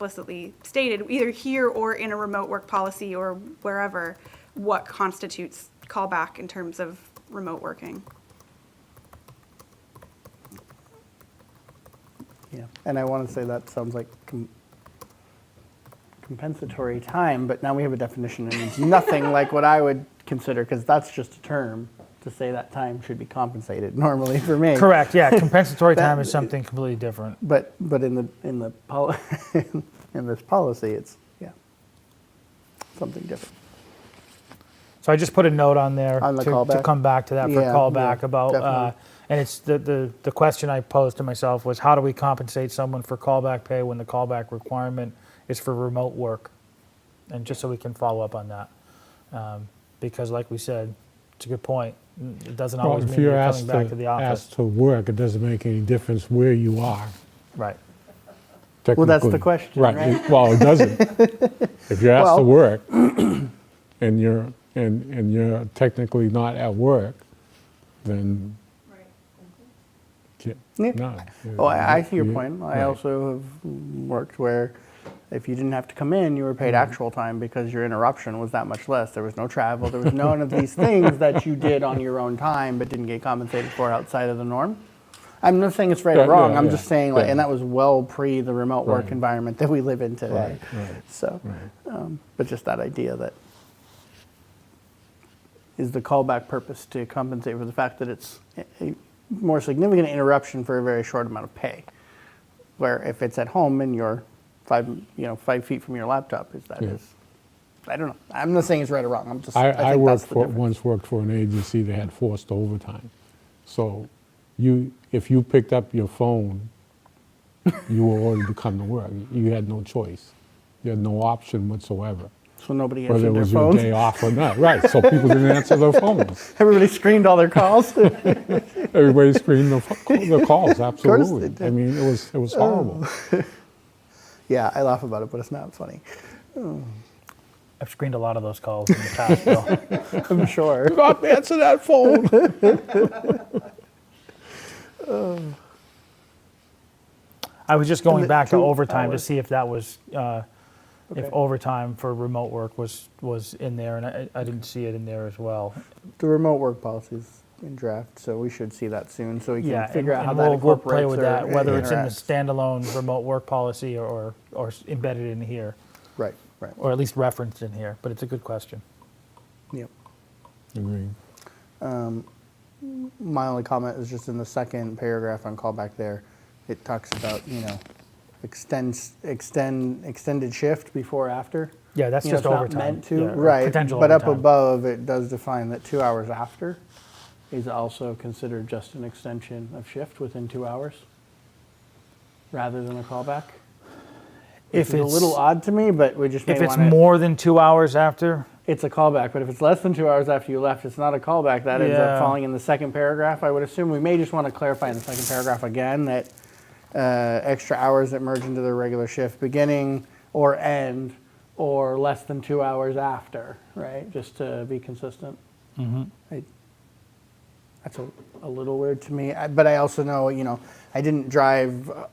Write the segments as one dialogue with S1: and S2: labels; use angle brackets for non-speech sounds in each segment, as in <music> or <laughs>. S1: explicitly stated, either here or in a remote work policy or wherever, what constitutes callback in terms of remote working.
S2: Yeah, and I want to say that sounds like com- compensatory time, but now we have a definition and it's nothing like what I would consider because that's just a term to say that time should be compensated normally for me. <laughs>
S3: Correct, yeah, compensatory
S2: That-
S3: time is something completely different.
S2: But but in the in the pol- <laughs> in this policy, it's yeah something different.
S3: So I just put a note on there
S2: On the
S3: to, to
S2: callback?
S3: come back to that for
S2: Yeah,
S3: callback
S2: yeah,
S3: about, uh,
S2: definitely.
S3: and it's the, the, the question I posed to myself was how do we compensate someone for callback pay when the callback requirement is for remote work? And just so we can follow up on that. Um, because like we said, it's a good point. It doesn't
S4: Well,
S3: always
S4: if
S3: mean
S4: you're
S3: you're
S4: asked
S3: coming back to
S4: to,
S3: the office.
S4: asked to work, it doesn't make any difference where you are.
S3: Right.
S2: Well, that's the
S4: technically.
S2: question, right?
S4: it- Well, it
S2: <laughs>
S4: doesn't. If you're asked to
S2: Well-
S4: work <clears throat> and you're, and, and you're technically not at work, then can't-
S2: Yeah.
S4: no.
S2: Oh, I, I see your
S4: You-
S2: point. I
S4: right.
S2: also have worked where if you didn't have to come in, you were paid
S4: Mm-hmm.
S2: actual time because your interruption was that much less. There was no travel, there was none of these things that you did on your own time but didn't get compensated for outside of the norm. I'm not saying it's right
S4: Yeah,
S2: or wrong.
S4: yeah,
S2: I'm
S4: yeah,
S2: just saying, like,
S4: yeah.
S2: and that was well pre the remote work
S4: Right.
S2: environment that we live in today.
S4: Right, right,
S2: So,
S4: right.
S2: um, but just that idea that is the callback purpose to compensate for the fact that it's a- a more significant interruption for a very short amount of pay. Where if it's at home and you're five, you know, five feet from your laptop, is that is,
S4: Yeah.
S2: I don't know. I'm not saying it's right or wrong. I'm just.
S4: I,
S2: think
S4: I
S2: that's
S4: worked
S2: the
S4: for,
S2: difference.
S4: once worked for an agency that had forced overtime. So you, if you picked up your phone, you were ordered to come to work. You had no choice. You had no option whatsoever,
S2: So nobody answered
S4: whether it
S2: their
S4: was your
S2: phones.
S4: day off or not. Right, so people didn't answer their phones.
S2: <laughs> Everybody screened all their calls. <laughs>
S4: Everybody screened their, pho- their calls,
S2: they
S4: absolutely. I
S2: did. Oh.
S4: mean, it was, it was horrible.
S2: yeah, I laugh about it, but it's not funny. <laughs>
S3: I've screened a lot of those calls in the past,
S4: <laughs>
S3: Bill.
S2: I'm sure.
S4: Not answer
S2: <laughs>
S4: that phone.
S3: I was just going
S2: the
S3: back to
S2: two
S3: overtime to
S2: hours.
S3: see if that was, uh, if
S2: Okay.
S3: overtime for remote work was, was in there, and I, I didn't see it in there as well.
S2: The remote work policies in draft, so we should see that soon, so we can
S3: Yeah,
S2: figure
S3: and-
S2: out how
S3: and
S2: that
S3: we'll- we'll
S2: incorporates
S3: play with
S2: or
S3: that, Whether it's in the
S2: interacts.
S3: standalone remote work policy or, or s- embedded in here,
S2: Right, right.
S3: or at least referenced in here, but it's a good question.
S2: Yep.
S4: Agreed.
S2: My only comment is just in the second paragraph on callback there, it talks about, you know, extends, extend, extended shift before, after.
S3: Yeah, that's
S2: You know,
S3: just
S2: it's not
S3: overtime.
S2: meant to,
S3: Yeah, or
S2: right,
S3: potential
S2: but up
S3: overtime.
S2: above, it does define that two hours after is also considered just an extension of shift within two hours, rather than a callback. which
S3: If
S2: is a little
S3: it's-
S2: odd to me, but we just may
S3: If it's
S2: want to,
S3: more than two hours after,
S2: it's a callback, but if it's less than two hours after you left, it's not a callback. That ends
S3: Yeah.
S2: up falling in the second paragraph. I would assume we may just want to clarify in the second paragraph again that uh, extra hours that merge into the regular shift beginning or end or less than two hours after, right? Just to be consistent. I- That's a, a little weird to me, I, but I also know, you know, I didn't drive, uh,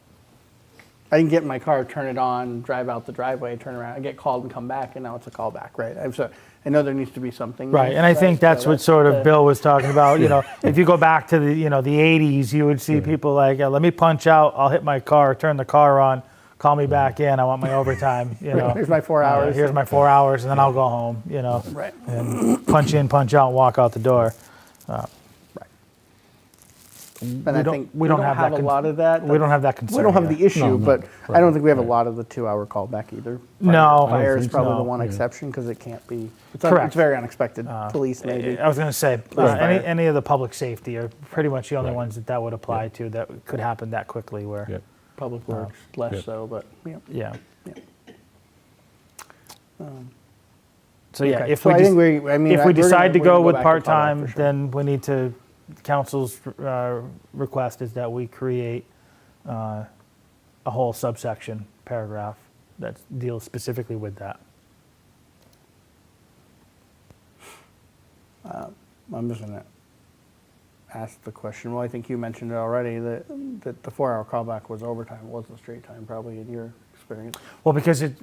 S2: I didn't get in my car, turn it on, drive out the driveway, turn around, I get called and come back, and now it's a callback, right? I'm so, I know there needs to be something.
S3: Right, and I think
S2: so
S3: that's what sort
S2: the-
S3: of Bill was talking about, you know, if you go back to the, you know, the eighties, you would see people like, "Yeah, let me punch out, I'll hit my car, turn the car on, call me back in, I want my
S2: <laughs>
S3: overtime, you know.
S2: Here's my four
S3: Uh,
S2: hours.
S3: Here's my four hours, and then I'll go home, you know,
S2: Right,
S3: and punch in, punch out, walk out the door.
S2: right. And I
S3: don't-
S2: think
S3: we don't have that
S2: a
S3: con-
S2: lot of that.
S3: We don't have that
S2: We
S3: concern.
S2: don't have
S3: here.
S2: the issue,
S4: No, no,
S2: but I
S4: right,
S2: don't think we have a
S4: right.
S2: lot of the two-hour callback either.
S3: No. I don't
S2: Fire is
S4: think
S2: probably
S3: so.
S2: the one
S4: Yeah.
S2: exception, because it can't be, it's un-
S3: Correct. Uh,
S2: it's very unexpected. Police maybe.
S3: I was going to say, uh,
S2: Right.
S3: any, any of the public safety are pretty much the only
S4: Right.
S3: ones that that would apply to that could happen that quickly. Where,
S4: Yeah.
S2: Public Works,
S4: yeah.
S2: less so, but, yeah.
S3: yeah.
S2: Yeah. Um,
S3: So yeah,
S2: Okay.
S3: if
S2: So
S3: we
S2: I
S3: just,
S2: think we- I mean,
S3: if
S2: I-
S3: we
S2: we're gonna-
S3: decide to
S2: we're gonna
S3: go
S2: go
S3: with
S2: back to follow-up for
S3: part-time,
S2: sure.
S3: then we need to, council's uh, request is that we create uh, a whole subsection paragraph that deals specifically with that.
S2: I'm just gonna ask the question, well, I think you mentioned it already, that, that the four-hour callback was overtime, it wasn't straight time, probably in your experience.
S3: Well, because it,